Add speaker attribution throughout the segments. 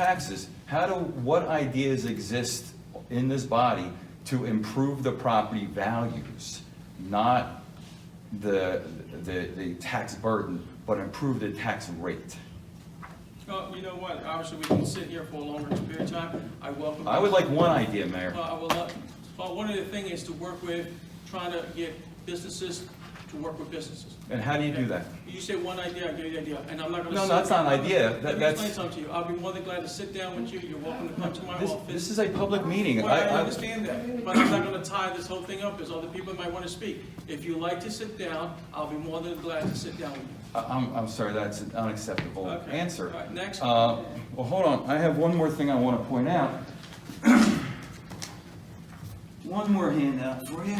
Speaker 1: taxes, how do, what ideas exist in this body to improve the property values? Not the, the, the tax burden, but improve the tax rate.
Speaker 2: Uh, you know what, obviously, we can sit here for a longer period of time, I welcome.
Speaker 1: I would like one idea, Mayor.
Speaker 2: Uh, I will, uh, well, one of the things is to work with, trying to get businesses to work with businesses.
Speaker 1: And how do you do that?
Speaker 2: You say one idea, I give you the idea, and I'm not gonna.
Speaker 1: No,
Speaker 2: sit-
Speaker 1: that's not an idea. That-
Speaker 2: Let me
Speaker 1: that's-
Speaker 2: explain something to you, I'll be more than glad to sit down with you, you're welcome to come to my
Speaker 1: This,
Speaker 2: office.
Speaker 1: this is a public meeting.
Speaker 2: Well,
Speaker 1: I-
Speaker 2: I
Speaker 1: I-
Speaker 2: understand that, but I'm not gonna tie this whole thing up, because other people might wanna speak. If you like to sit down, I'll be more than glad to sit down with you.
Speaker 1: I- I'm, I'm sorry, that's an unacceptable
Speaker 2: Okay.
Speaker 1: answer.
Speaker 2: All right, next.
Speaker 1: Uh, Well, hold on, I have one more thing I want to point out. One more handout for you.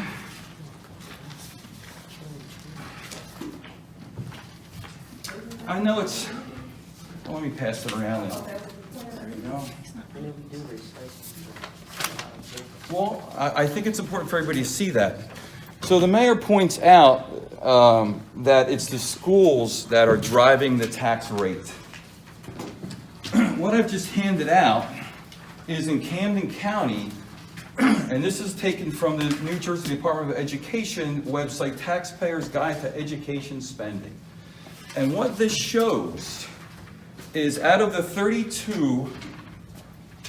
Speaker 1: I know it's, oh, let me pass it around. There you go. Well, I, I think it's important for everybody to see that. So the mayor points out um, that it's the schools that are driving the tax rate. What I've just handed out is in Camden County, and this is taken from the New Jersey Department of Education website, Taxpayers Guide to Education Spending. And what this shows is out of the 32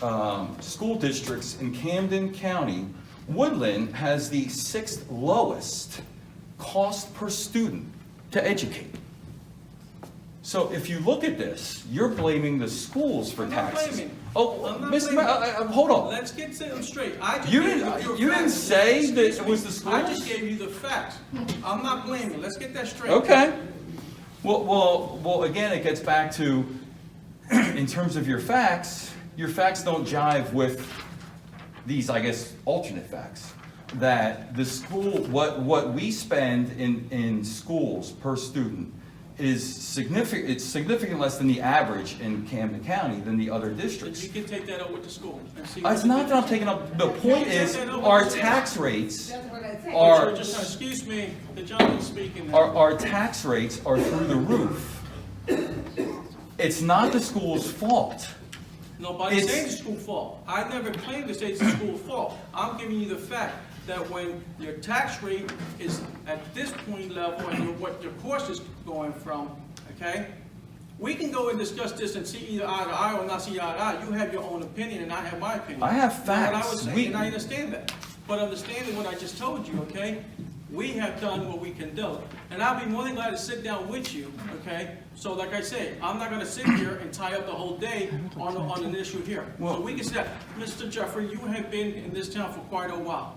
Speaker 1: um, school districts in Camden County, Woodland has the sixth lowest cost per student to educate. So if you look at this, you're blaming the schools for
Speaker 2: I'm not
Speaker 1: taxes.
Speaker 2: blaming.
Speaker 1: Oh,
Speaker 2: I'm not
Speaker 1: Mr. Ma-
Speaker 2: blaming.
Speaker 1: I- I- hold on.
Speaker 2: Let's get them straight. I just
Speaker 1: You
Speaker 2: gave
Speaker 1: didn't-
Speaker 2: your
Speaker 1: you didn't
Speaker 2: facts.
Speaker 1: say that
Speaker 2: Excuse
Speaker 1: it
Speaker 2: me.
Speaker 1: was the
Speaker 2: I just
Speaker 1: schools?
Speaker 2: gave you the facts. I'm not blaming. Let's get that straight.
Speaker 1: Okay. Well, well, well, again, it gets back to, in terms of your facts, your facts don't jive with these, I guess, alternate facts. That the school, what, what we spend in, in schools per student is significant, it's significant less than the average in Camden County than the other
Speaker 2: Then
Speaker 1: districts.
Speaker 2: you can take that up with the school and see.
Speaker 1: It's not that I'm taking up, the point is, our tax rates
Speaker 3: That's what I think.
Speaker 1: are.
Speaker 2: Sir, just- Excuse me, the gentleman's speaking. now.
Speaker 1: our, our tax rates are through the roof. It's not the school's fault.
Speaker 2: Nobody's
Speaker 1: It's-
Speaker 2: saying it's school fault. I never claimed to say it's the school fault. I'm giving you the fact that when your tax rate is at this point level and your- what your cost is going from, okay? We can go and discuss this and see either eye to eye or not see eye to eye. You have your own opinion and I have my opinion.
Speaker 1: I have
Speaker 2: You know what I
Speaker 1: facts.
Speaker 2: was saying,
Speaker 1: We-
Speaker 2: And I understand that. But understanding what I just told you, okay? We have done what we can do. And I'll be more than glad to sit down with you, okay? So like I say, I'm not gonna sit here and tie up the whole day on, on an issue here. So
Speaker 1: Well-
Speaker 2: we can sit, down. Mr. Jeffrey, you have been in this town for quite a while,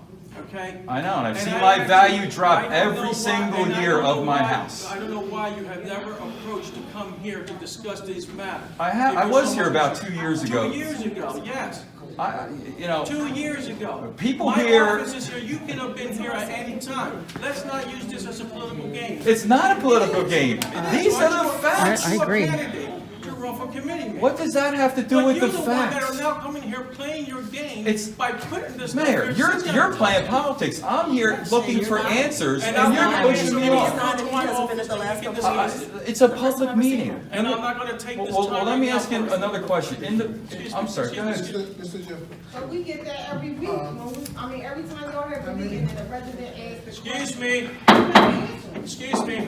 Speaker 2: okay?
Speaker 1: I know, and I've seen
Speaker 2: I
Speaker 1: my
Speaker 2: actually-
Speaker 1: value
Speaker 2: I
Speaker 1: drop
Speaker 2: don't know
Speaker 1: every
Speaker 2: why-
Speaker 1: single
Speaker 2: and I
Speaker 1: year
Speaker 2: don't know
Speaker 1: of my
Speaker 2: why-
Speaker 1: house.
Speaker 2: I don't know why you have never approached to come here to discuss these matters.
Speaker 1: I ha- I
Speaker 2: Because
Speaker 1: was
Speaker 2: so
Speaker 1: here
Speaker 2: much-
Speaker 1: about two years ago.
Speaker 2: Two years ago, yes.
Speaker 1: I, you know,
Speaker 2: Two years ago.
Speaker 1: People here-
Speaker 2: My office is here, you can have been here at any time. Let's not use this as a political game.
Speaker 1: it's not a political game. These are the
Speaker 2: You're
Speaker 1: facts.
Speaker 2: a
Speaker 4: I agree.
Speaker 2: candidate to run for committee man.
Speaker 1: What does that have to do with the
Speaker 2: But you're the one that are
Speaker 1: facts?
Speaker 2: now coming here playing your game
Speaker 1: It's-
Speaker 2: by putting this. stuff
Speaker 1: Mayor,
Speaker 2: here.
Speaker 1: you're,
Speaker 2: Sit down.
Speaker 1: you're playing politics. I'm here looking for answers,
Speaker 2: And
Speaker 1: and
Speaker 2: I'm
Speaker 1: you're
Speaker 2: not
Speaker 1: pushing me
Speaker 2: answering
Speaker 1: off.
Speaker 2: your
Speaker 3: He hasn't been at the last
Speaker 2: You can
Speaker 3: couple of
Speaker 2: discuss it.
Speaker 1: I- It's a public meeting.
Speaker 2: And I'm not gonna take
Speaker 1: Well,
Speaker 2: this
Speaker 1: well,
Speaker 2: time.
Speaker 1: well, let
Speaker 2: right
Speaker 1: me
Speaker 2: now
Speaker 1: ask you
Speaker 2: for-
Speaker 1: another question. In
Speaker 2: Excuse
Speaker 1: the,
Speaker 2: me,
Speaker 1: I'm sorry, go
Speaker 2: excuse me,
Speaker 1: ahead.
Speaker 2: excuse
Speaker 5: Mr. Mr. Jeffrey,
Speaker 3: But we get that every week, when we- I mean, every time y'all have a meeting and the president asks the
Speaker 2: Excuse
Speaker 3: question.
Speaker 2: me.
Speaker 3: Excuse me.
Speaker 2: Excuse me.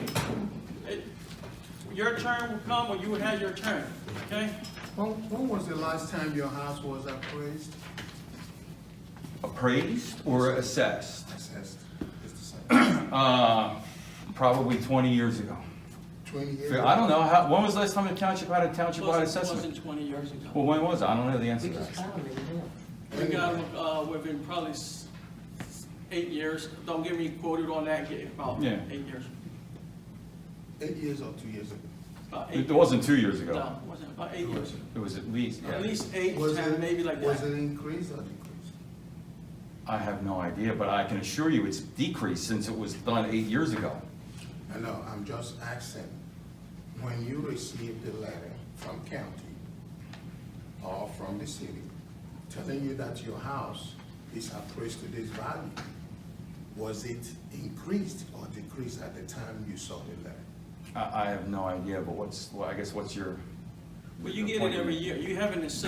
Speaker 2: It- Your turn will come when you have your turn, okay?
Speaker 5: when, when was the last time your house was appraised?
Speaker 1: Appraised or assessed?
Speaker 5: Assessed. It's the same.
Speaker 1: Uh, probably 20 years ago.
Speaker 5: Twenty years.
Speaker 1: I don't know, how, when was the last time the township had a township-wide
Speaker 2: Plus, It
Speaker 1: assessment?
Speaker 2: wasn't twenty years ago.
Speaker 1: Well, when was it? I don't know the answer to that.
Speaker 2: We got, uh, within probably s- eight years, don't get me quoted on that, get, about
Speaker 1: Yeah.
Speaker 2: eight years.
Speaker 5: Eight years or two years ago?
Speaker 2: About eight,
Speaker 1: It wasn't two years ago.
Speaker 2: no, wasn't, about eight years.
Speaker 1: It was at least,
Speaker 2: At
Speaker 1: yeah.
Speaker 2: least eight,
Speaker 5: Was
Speaker 2: ten,
Speaker 5: it-
Speaker 2: maybe like
Speaker 5: Was
Speaker 2: that.
Speaker 5: it increased or decreased?
Speaker 1: I have no idea, but I can assure you it's decreased since it was done eight years ago.
Speaker 5: I know, I'm just asking, when you received the letter from county or from the city telling you that your house is appraised to this value, was it increased or decreased at the time you saw the letter?
Speaker 1: I, I have no idea, but what's, well, I guess what's your?
Speaker 2: But you get
Speaker 1: your point
Speaker 2: it
Speaker 1: you
Speaker 2: every
Speaker 1: make?
Speaker 2: year. You haven't assessed